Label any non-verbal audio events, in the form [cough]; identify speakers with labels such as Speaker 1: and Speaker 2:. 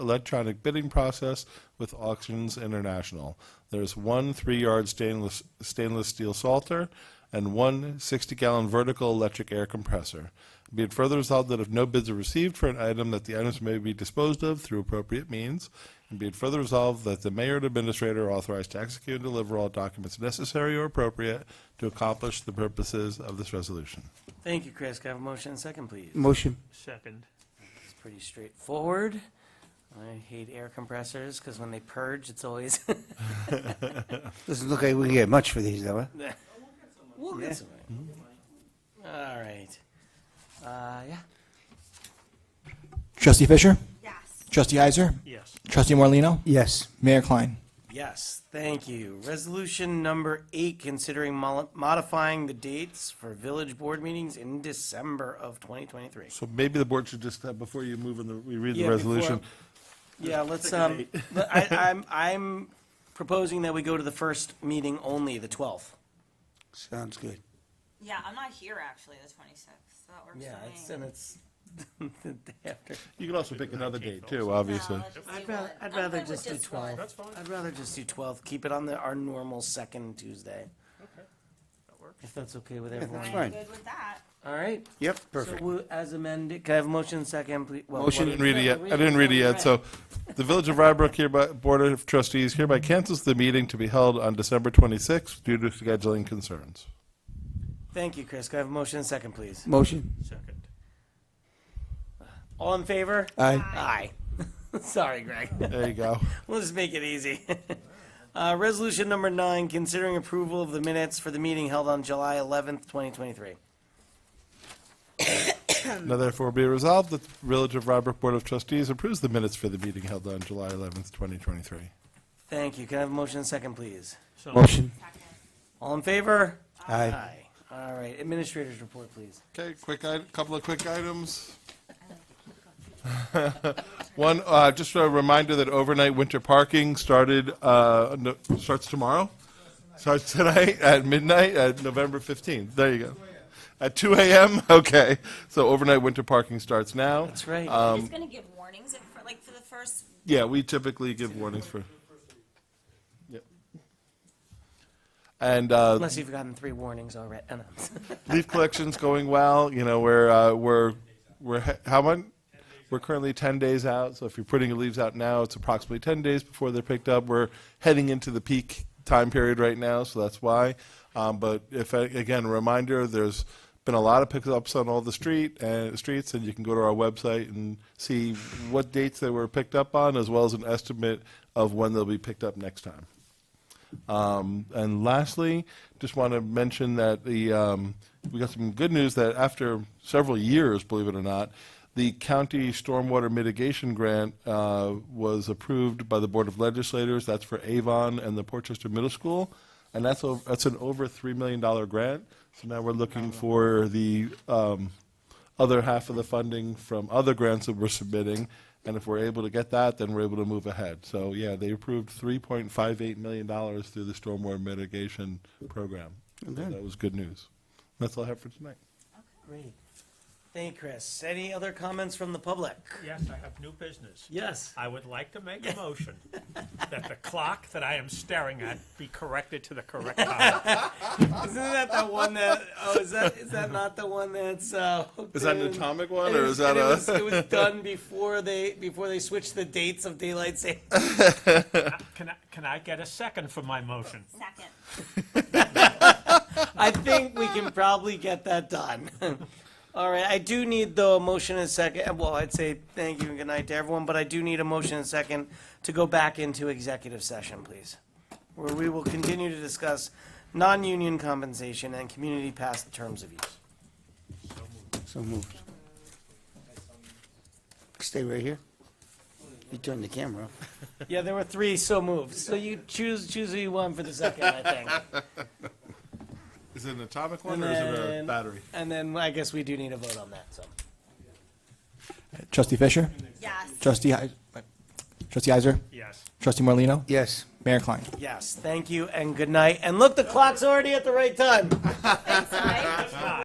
Speaker 1: electronic bidding process with Auctions International. There's one three-yard stainless, stainless steel salter and one 60-gallon vertical electric air compressor. Be it further resolved that if no bids are received for an item, that the items may be disposed of through appropriate means. And be it further resolved that the mayor and administrator are authorized to execute and deliver all documents necessary or appropriate to accomplish the purposes of this resolution.
Speaker 2: Thank you, Chris. Can I have a motion and a second, please?
Speaker 3: Motion.
Speaker 4: Second.
Speaker 2: It's pretty straightforward. I hate air compressors because when they purge, it's always. [laughs]
Speaker 3: Doesn't look like we can get much for these, though, huh?
Speaker 2: We'll get some. All right. Uh, yeah.
Speaker 5: Trustee Fisher?
Speaker 6: Yes.
Speaker 5: Trustee Heiser?
Speaker 4: Yes.
Speaker 5: Trustee Morlino,
Speaker 3: Yes.
Speaker 5: Mayor Klein?
Speaker 2: Yes, thank you. Resolution number eight, considering mo- modifying the dates for village board meetings in December of 2023.
Speaker 1: So maybe the board should just, uh, before you move and the- we read
Speaker 2: Yeah,
Speaker 1: the
Speaker 2: before-
Speaker 1: resolution,
Speaker 2: Yeah, let's, um, let- I, I'm, I'm proposing that we go to the first meeting only, the 12th.
Speaker 3: Sounds good.
Speaker 6: Yeah, I'm not here actually, the 26th. So that works
Speaker 2: Yeah,
Speaker 6: for me. Uh,
Speaker 2: it's, and it's [laughs] the day after.
Speaker 1: you can also pick another date too,
Speaker 6: No,
Speaker 1: obviously.
Speaker 6: let's do
Speaker 2: I'd rather,
Speaker 6: one.
Speaker 2: I'd
Speaker 6: I'm
Speaker 2: rather
Speaker 6: good with
Speaker 2: just do
Speaker 6: this one.
Speaker 2: 12.
Speaker 4: That's fine.
Speaker 2: I'd rather just do 12. Keep it on the, our normal second Tuesday.
Speaker 4: That works.
Speaker 2: If that's okay with
Speaker 3: That's
Speaker 2: everyone.
Speaker 6: I'm
Speaker 3: fine.
Speaker 6: good with that.
Speaker 2: [laughs] All right.
Speaker 3: Yep,
Speaker 2: So we'll- as amended, can I have a motion second, please? Well,
Speaker 1: I
Speaker 2: what-
Speaker 1: Oh, didn't read it yet. I didn't read it yet. So the Village of Rybrook hereby, Board of Trustees hereby cancels the meeting to be held on December 26th due to scheduling concerns.
Speaker 2: Thank you, Chris. Can I have a motion second, please?
Speaker 3: Motion.
Speaker 4: Second.
Speaker 2: All in favor? Aye.
Speaker 5: Aye.
Speaker 2: [laughs] Sorry, Greg. [laughs]
Speaker 1: There you go.
Speaker 2: We'll just make it easy. [laughs] Uh, resolution number nine, considering approval of the minutes for the meeting held on July 11th, 2023.
Speaker 1: Now therefore be resolved that the Village of Rybrook Board of Trustees approves the minutes for the meeting held on July 11th, 2023.
Speaker 2: Thank you. Can I have a motion second, please?
Speaker 4: So-
Speaker 3: Motion.
Speaker 6: Second.
Speaker 2: All in favor?
Speaker 3: Aye.
Speaker 2: All right. Administrators report, please.
Speaker 1: Okay, quick, i- couple of quick items. [laughs] One, uh, just a reminder that overnight winter parking started, uh, no- starts tomorrow, starts tonight [laughs] at midnight, at November 15th. There you go. At 2 a.m.? [laughs] Okay. So overnight winter parking starts now.
Speaker 2: That's right.
Speaker 3: Um,
Speaker 6: We're just gonna give warnings at fir- like for the first
Speaker 1: Yeah, we typically give warnings for. Yep. And uh,
Speaker 2: Unless you've gotten three warnings already. [laughs] Oh, no.
Speaker 1: leaf collection's going well. You know, we're uh, we're we're he- how much? We're currently 10 days out, so if you're putting your leaves out now, it's approximately 10 days before they're picked up. We're heading into the peak time period right now, so that's why. Um, but if I, again, a reminder, there's been a lot of pickups on all the street and streets, and you can go to our website and see what dates they were picked up on, as well as an estimate of when they'll be picked up next time. Um, and lastly, just want to mention that the um, we got some good news that after several years, believe it or not, the county stormwater mitigation grant uh, was approved by the Board of Legislators. That's for Avon and the Portchester Middle School, and that's over, that's an over three million dollar grant. So now we're looking for the um, other half of the funding from other grants that we're submitting. And if we're able to get that, then we're able to move ahead. So, yeah, they approved $3.58 million through the stormwater mitigation program. So That was good news. That's all I have for tonight.
Speaker 2: Great. Thank you, Chris. Any other comments from the public?
Speaker 4: Yes, I have new business.
Speaker 2: Yes.
Speaker 4: I would like to make a
Speaker 2: [laughs]
Speaker 4: motion that the clock that I am staring at be corrected to
Speaker 2: [laughs]
Speaker 4: the correct time.
Speaker 2: Isn't that the one that, oh, is that, is that not the one that's, uh? hooked in?
Speaker 1: one,
Speaker 2: And it was- and it was- It was done before they, before they switched the dates of daylight saving.
Speaker 4: Can I, can I get a second for my motion?
Speaker 6: second.
Speaker 3: [laughs]
Speaker 2: I think we can probably get that done. [laughs] All right, I do need though a motion and a second, well, I'd say thank you and good night to everyone, but I do need a motion and a second to go back into executive session, please. Where we will continue to discuss non-union compensation and community past terms of use.
Speaker 3: So moved. Stay right here. You turned the camera off.
Speaker 2: Yeah, there were three so moved, so you choose, choose who you want for the second, I think.
Speaker 1: [laughs] Is it an atomic one
Speaker 2: And
Speaker 1: or is it a
Speaker 2: then-
Speaker 1: battery?
Speaker 2: And then I guess we do need a vote on that, so.
Speaker 5: Trustee Fisher?
Speaker 6: Yes.
Speaker 5: Trustee Heiser? Trustee Heiser?
Speaker 4: Yes.
Speaker 5: Trustee Morlino,
Speaker 3: Yes.
Speaker 5: Mayor Klein?
Speaker 2: Yes, thank you and good night. And look, the clock's already at the right time.
Speaker 6: [laughs] Thanks, all right.